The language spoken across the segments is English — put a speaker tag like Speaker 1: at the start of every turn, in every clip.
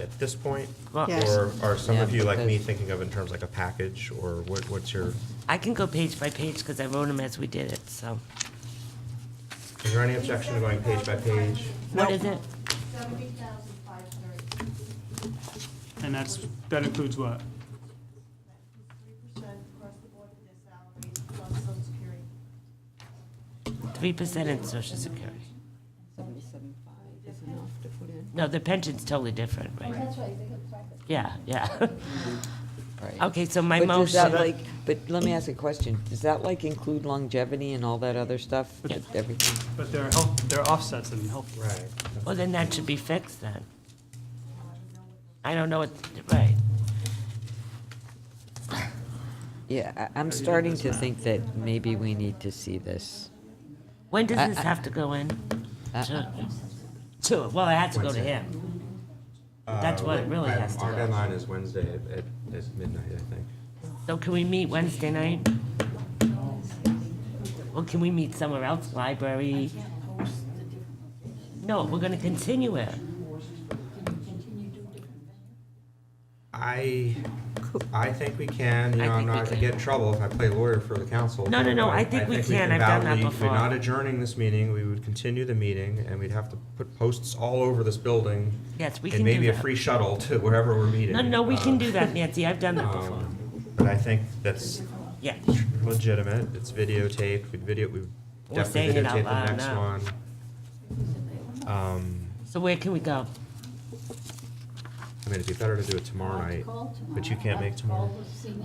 Speaker 1: at this point?
Speaker 2: Yes.
Speaker 1: Or are some of
Speaker 3: Yeah,
Speaker 1: you like me
Speaker 3: because-
Speaker 1: thinking of in terms like a package or what, what's your,
Speaker 3: I can go page by page because I wrote them as we did it, so.
Speaker 1: is there any objection to going page by page?
Speaker 3: What is it?
Speaker 4: Seventy thousand five hundred,
Speaker 5: And that's, that includes what?
Speaker 4: three percent across the board for their salaries, plus social security.
Speaker 3: Three percent in social security.
Speaker 6: Seventy-seven five is enough to put in.
Speaker 3: No, the pension's totally different, right?
Speaker 7: Oh, That's right, they have practice.
Speaker 3: Yeah, yeah.
Speaker 2: Right.
Speaker 3: Okay, so my But does that, motion,
Speaker 2: But like, but let me ask a question. Does that like include longevity and all that other stuff?
Speaker 3: Yeah.
Speaker 2: Everything?
Speaker 5: But there are health, there are offsets in healthcare.
Speaker 1: Right.
Speaker 3: well, then that should be fixed then. I don't know what, right.
Speaker 2: Yeah, I, I'm starting to think that maybe we need to see this.
Speaker 3: When does
Speaker 2: I-
Speaker 3: this
Speaker 2: I-
Speaker 3: have to go in?
Speaker 2: I-
Speaker 3: To, to- well, it has to go to him. That's what it really has to
Speaker 1: Uh, Our
Speaker 3: go.
Speaker 1: deadline is Wednesday at, at midnight, I think.
Speaker 3: So can we meet Wednesday night? Or can we meet somewhere else, library? No, we're gonna continue it.
Speaker 1: I, I think we can, you
Speaker 3: I
Speaker 1: know, I'm
Speaker 3: think
Speaker 1: not
Speaker 3: we
Speaker 1: gonna
Speaker 3: can.
Speaker 1: get in trouble if I play lawyer for the council.
Speaker 3: No, no,
Speaker 1: but
Speaker 3: no, I think we can. I've done that
Speaker 1: validly-
Speaker 3: before.
Speaker 1: We're not adjourning this meeting, we would continue the meeting, and we'd have to put posts all over this building.
Speaker 3: Yes, we
Speaker 1: And
Speaker 3: can do
Speaker 1: maybe a
Speaker 3: that.
Speaker 1: free shuttle to wherever we're meeting.
Speaker 3: No, no, we
Speaker 1: Uh,
Speaker 3: can do that, Nancy, I've done that before.
Speaker 1: Um, But I think that's
Speaker 3: Yeah,
Speaker 1: legitimate, it's videotaped, we video, we
Speaker 3: We're saying
Speaker 1: definitely
Speaker 3: it out
Speaker 1: videotaped the
Speaker 3: loud
Speaker 1: next
Speaker 3: now.
Speaker 1: one. Um,
Speaker 3: so where can we go?
Speaker 1: I mean, it'd be better to do it tomorrow night, but you
Speaker 7: Uh,
Speaker 1: can't make tomorrow.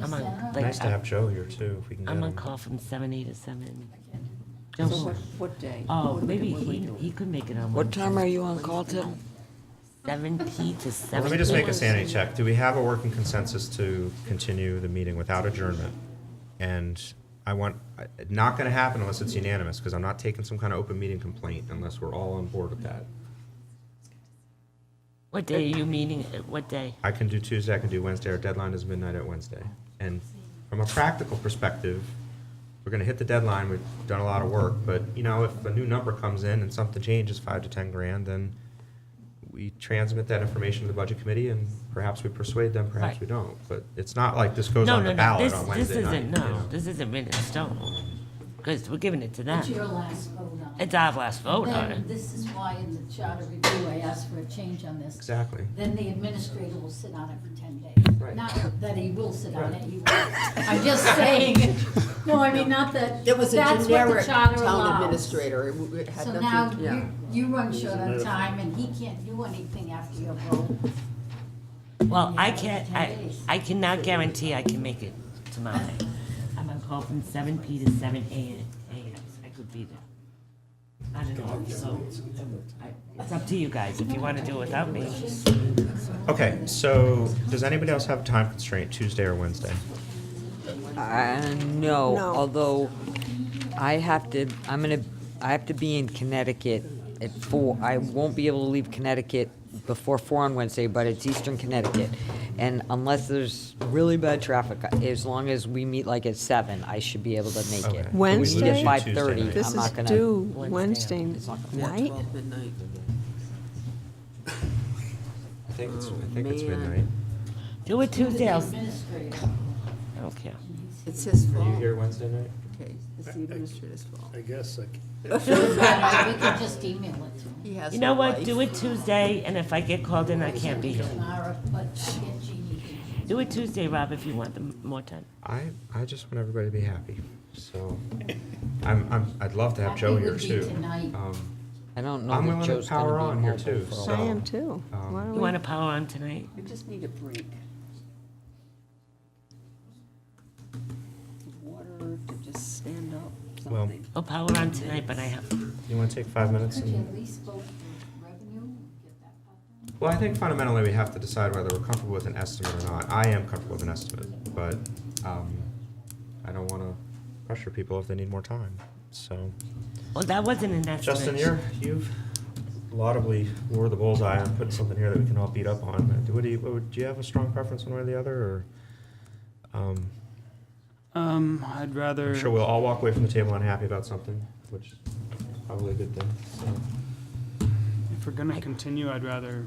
Speaker 3: I'm on,
Speaker 1: Nice
Speaker 3: like, uh,
Speaker 1: to have Joe here too, if we can get him.
Speaker 3: I'm on call from seven eight to seven.
Speaker 6: So
Speaker 3: Joe,
Speaker 6: what, what day?
Speaker 3: oh,
Speaker 6: What do we-
Speaker 3: maybe
Speaker 6: what do we
Speaker 3: he,
Speaker 6: do?
Speaker 3: he could make it on
Speaker 2: What time
Speaker 3: Wednesday.
Speaker 2: are you on call till?
Speaker 3: Seven P to seven.
Speaker 1: Let me just make a sanity check. Do we have a working consensus to continue the meeting without adjournment? And I want, I- not going to happen unless it's unanimous, because I'm not taking some kind of open meeting complaint unless we're all on board with that.
Speaker 3: What day are you meeting, uh, what day?
Speaker 1: I can do Tuesday, I can do Wednesday, our deadline is midnight at Wednesday. And from a practical perspective, we're gonna hit the deadline, we've done a lot of work, but, you know, if a new number comes in and something changes five to ten grand, then we transmit that information to the budget committee and perhaps we persuade them, perhaps
Speaker 3: Right.
Speaker 1: we don't. But it's not like this goes
Speaker 3: No,
Speaker 1: on
Speaker 3: no,
Speaker 1: the
Speaker 3: no,
Speaker 1: ballot
Speaker 3: this,
Speaker 1: on
Speaker 3: this
Speaker 1: Wednesday night.
Speaker 3: isn't,
Speaker 1: you know.
Speaker 3: no, this isn't written in stone, because we're giving it to them.
Speaker 7: It's your last vote on it.
Speaker 3: It's our last vote on
Speaker 7: Then,
Speaker 3: it.
Speaker 7: this is why in the charter review, I asked for a change on this.
Speaker 1: Exactly.
Speaker 7: Then the administrator will sit on it for ten days.
Speaker 1: Right.
Speaker 7: Not that he will sit on
Speaker 1: Right.
Speaker 7: it, he will. I'm just saying, no, I mean, not that,
Speaker 6: It was a
Speaker 7: that's what the
Speaker 6: generic
Speaker 7: charter
Speaker 6: town
Speaker 7: allows.
Speaker 6: administrator. It w- it had
Speaker 7: So
Speaker 6: nothing-
Speaker 7: now,
Speaker 6: yeah.
Speaker 7: you, you run short on time, and he can't do anything after your vote.
Speaker 3: Well,
Speaker 7: Yeah,
Speaker 3: I
Speaker 7: it's
Speaker 3: can't,
Speaker 7: 10
Speaker 3: I,
Speaker 7: days.
Speaker 3: I cannot guarantee I can make it tomorrow night. I'm on call from seven P to seven A, A, I could be there. I don't know, so, I- it's up to you guys, if you wanna do it without me.
Speaker 1: Okay, so, does anybody else have a time constraint, Tuesday or Wednesday?
Speaker 2: Uh, no, although I have to, I'm gonna, I have to be in Connecticut at four. I won't be able to leave Connecticut before four on Wednesday, but it's Eastern Connecticut. And unless there's really bad traffic, as long as we meet like at seven, I should be able to make
Speaker 1: Okay.
Speaker 2: it.
Speaker 1: So we lose you
Speaker 2: At
Speaker 1: Tuesday
Speaker 6: Wednesday?
Speaker 2: five
Speaker 1: night.
Speaker 2: thirty,
Speaker 6: This
Speaker 2: I'm
Speaker 6: is
Speaker 2: not gonna.
Speaker 6: due Wednesday night?
Speaker 1: I think it's, I think it's
Speaker 3: Oh,
Speaker 2: man.
Speaker 1: midnight.
Speaker 3: Do it Tuesday, I'll, s-
Speaker 7: Administrator.
Speaker 3: I don't care.
Speaker 6: It's his
Speaker 1: Are you
Speaker 6: fault.
Speaker 1: here Wednesday night?
Speaker 6: Okay, it's the administrator's fault.
Speaker 8: I guess, like,
Speaker 7: Rabbi, we could just email it to him.
Speaker 6: He has
Speaker 3: You know
Speaker 6: no
Speaker 3: what,
Speaker 6: life.
Speaker 3: do it Tuesday, and if I get called in, I can't be here.
Speaker 7: Tomorrow, but I get Jeannie.
Speaker 3: Do it Tuesday, Rob, if you want the m- more time.
Speaker 1: I, I just want everybody to be happy. So I'm, I'm, I'd love to have Joe
Speaker 7: Happy
Speaker 1: here
Speaker 7: would be
Speaker 1: too.
Speaker 7: tonight.
Speaker 1: Um,
Speaker 2: I don't know
Speaker 1: I'm
Speaker 2: that
Speaker 1: willing to
Speaker 2: Joe's gonna be
Speaker 1: power on here
Speaker 2: mobile
Speaker 1: too.
Speaker 2: for a
Speaker 1: so,
Speaker 2: while.
Speaker 6: I am too.
Speaker 1: um,
Speaker 6: Why
Speaker 3: You
Speaker 6: don't
Speaker 3: wanna power on tonight?
Speaker 6: we? We just need a break. Water to just stand up,
Speaker 1: Well-
Speaker 6: something.
Speaker 3: I'll Oh, power on tonight, but I have,
Speaker 1: You want to take five minutes?
Speaker 7: Could you
Speaker 1: and-
Speaker 7: at least vote for revenue and get that out
Speaker 1: Well, I think fundamentally we have to decide whether we're comfortable with an estimate or not. I am comfortable with an estimate, but um, I don't want to pressure people if they need more time. So
Speaker 3: well, that wasn't an estimate.
Speaker 1: Justin, you're, you've laudably wore the bullseye on putting something here that we can all beat up on. What do you, what would- do you have a strong preference one way or the other or? um,
Speaker 5: Um, I'd rather,
Speaker 1: I'm sure we'll all walk away from the table unhappy about something, which is probably a good thing. So,
Speaker 5: if we're gonna continue, I'd rather